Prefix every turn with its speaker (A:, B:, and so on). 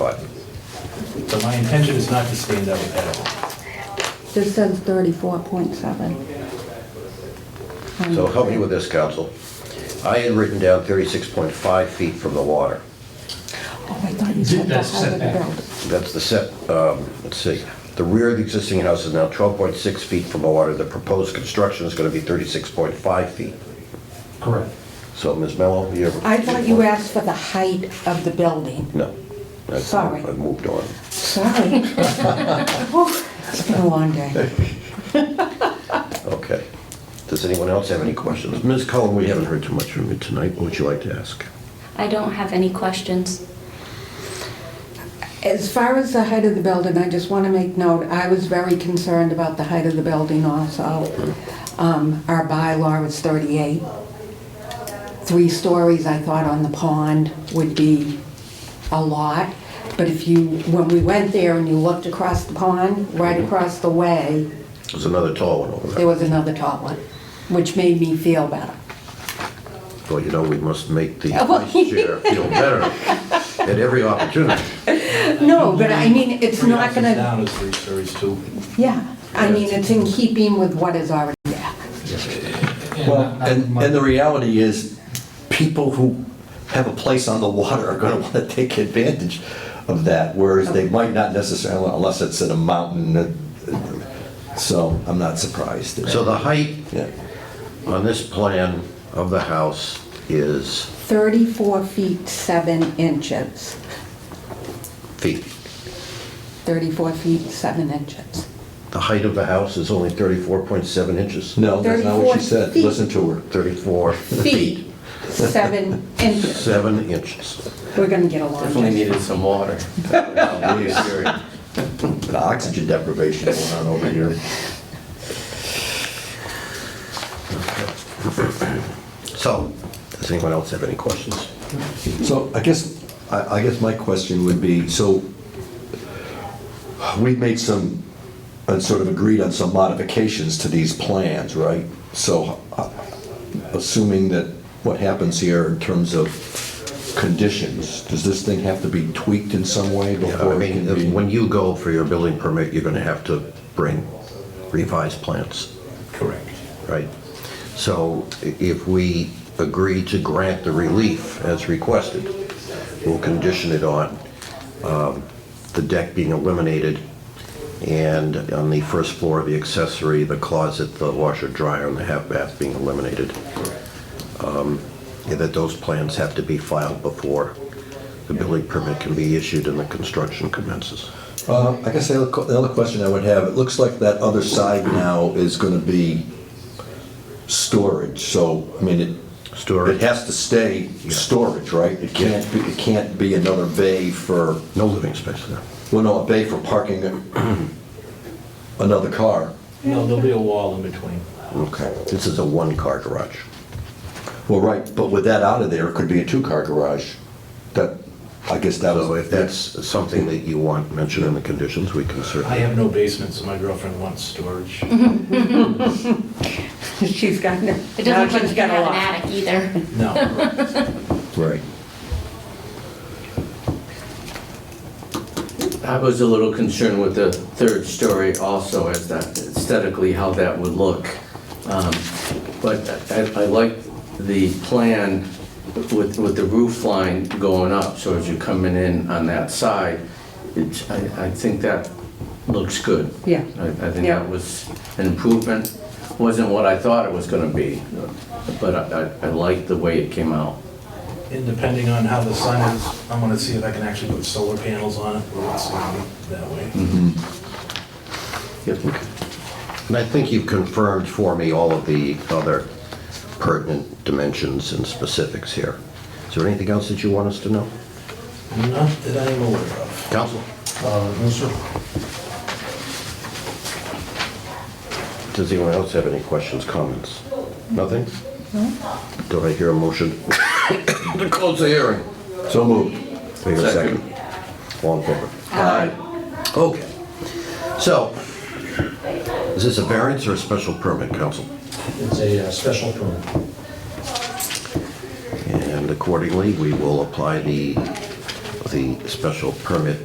A: But my intention is not to stand out at all.
B: This says thirty-four point seven.
C: So help me with this, council. I had written down 36.5 feet from the water.
B: Oh, I thought you said the
D: That's
B: height of the
D: setback.
B: building.
C: That's the set, um, let's see, the rear of the existing house is now 12.6 feet from the water. The proposed construction is going to be 36.5 feet.
D: Correct.
C: So, Ms. Mello, you have...
B: I thought you asked for the height of the building.
C: No. I've-
B: Sorry.
C: I've moved on.
B: Sorry. Whew, Oh, It's been a long day.
C: Okay. Does anyone else have any questions? Ms. Cullen, we haven't heard too much from you tonight. What would you like to ask?
E: I don't have any questions.
B: As far as the height of the building, I just want to make note, I was very concerned about the height of the building also. Um, Our bylaw is 38. Three stories, I thought, on the pond would be a lot. But if you, when we went there and you looked across the pond,
D: Mm-hmm.
B: right across the way,
C: There's another tall one over there.
B: there was another tall one, which made me feel better.
C: Well, you know, we must make the
B: Well,
C: vice chair feel better at every opportunity.
B: No, but I mean, it's not
A: Three houses
B: gonna,
A: down is three stories too.
B: yeah, I mean, it's in keeping with what is already there.
F: Well, and, and the reality is, people who have a place on the water are gonna wanna take advantage of that, whereas they might not necessarily, unless it's in a mountain. uh, So I'm not surprised.
C: So the height
F: Yeah.
C: on this plan of the house is
B: 34 feet 7 inches.
C: feet.
B: 34 feet 7 inches.
C: The height of the house is only 34.7 inches.
F: No, that's not what she
B: 34
F: said.
B: feet.
F: Listen to her.
C: 34 feet,
B: Feet 7 inches.
C: 7 inches.
B: We're gonna get along.
G: Definitely needed some water.
F: The Oxygen deprivation going on over here.
C: So, does anyone else have any questions?
F: So I guess, I I guess my question would be, so we've made some, and sort of agreed on some modifications to these plans, right? So uh, assuming that what happens here in terms of conditions, does this thing have to be tweaked in some way
C: Yeah, I
F: before it
C: mean,
F: can be?
C: when you go for your building permit, you're going to have to bring revised plans.
A: Correct.
C: Right. So i- if we agree to grant the relief as requested, we'll condition it on um, the deck being eliminated and on the first floor of the accessory, the closet, the washer, dryer, and the half bath being eliminated. Um, and That those plans have to be filed before the building permit can be issued and the construction commences.
F: Uh, I guess the other co- the other question I would have, it looks like that other side now is going to be storage, so, I mean, it.
C: Storage.
F: It has to stay storage, right? It can't, be- it can't be another bay for,
C: No living space there.
F: well, no, a bay for parking another car.
G: No, there'll be a wall in between.
C: Okay. This is a one-car garage.
F: Well, right, but with that out of there, it could be a two-car garage. That, I guess that was.
C: So if that's something that you want mentioned in the conditions, we can
A: I
C: certainly.
A: have no basement, so my girlfriend wants storage.
B: Mm-hmm. She's got, no-
E: It
B: now
E: doesn't look like
B: she's
E: you
B: got a
E: have an
B: lot.
E: attic either.
A: No.
F: Right.
G: I was a little concerned with the third story also, as that aesthetically, how that would look. Um, But I I like the plan with, with the roof line going up, so as you're coming in on that side, it's, I, I think that looks good.
B: Yeah.
G: I I think
B: Yeah.
G: that was an improvement, wasn't what I thought it was gonna be, but I, I- I liked the way it came out.
A: And depending on how the sun is, I'm gonna see if I can actually put solar panels on it, or it's gonna be that way.
G: Yep.
C: And I think you've confirmed for me all of the other pertinent dimensions and specifics here. Is there anything else that you want us to know?
D: Mm.
A: Not that I'm aware of.
C: Counsel? Does anyone else have any questions, comments? Nothing? Do I hear a motion to close the hearing?
F: So moved.
C: Do I hear a second? All in favor?
B: Uh,
C: Okay. So, is this a variance or a special permit, council?
D: It's a uh, special permit.
C: And accordingly, we will apply the, the special permit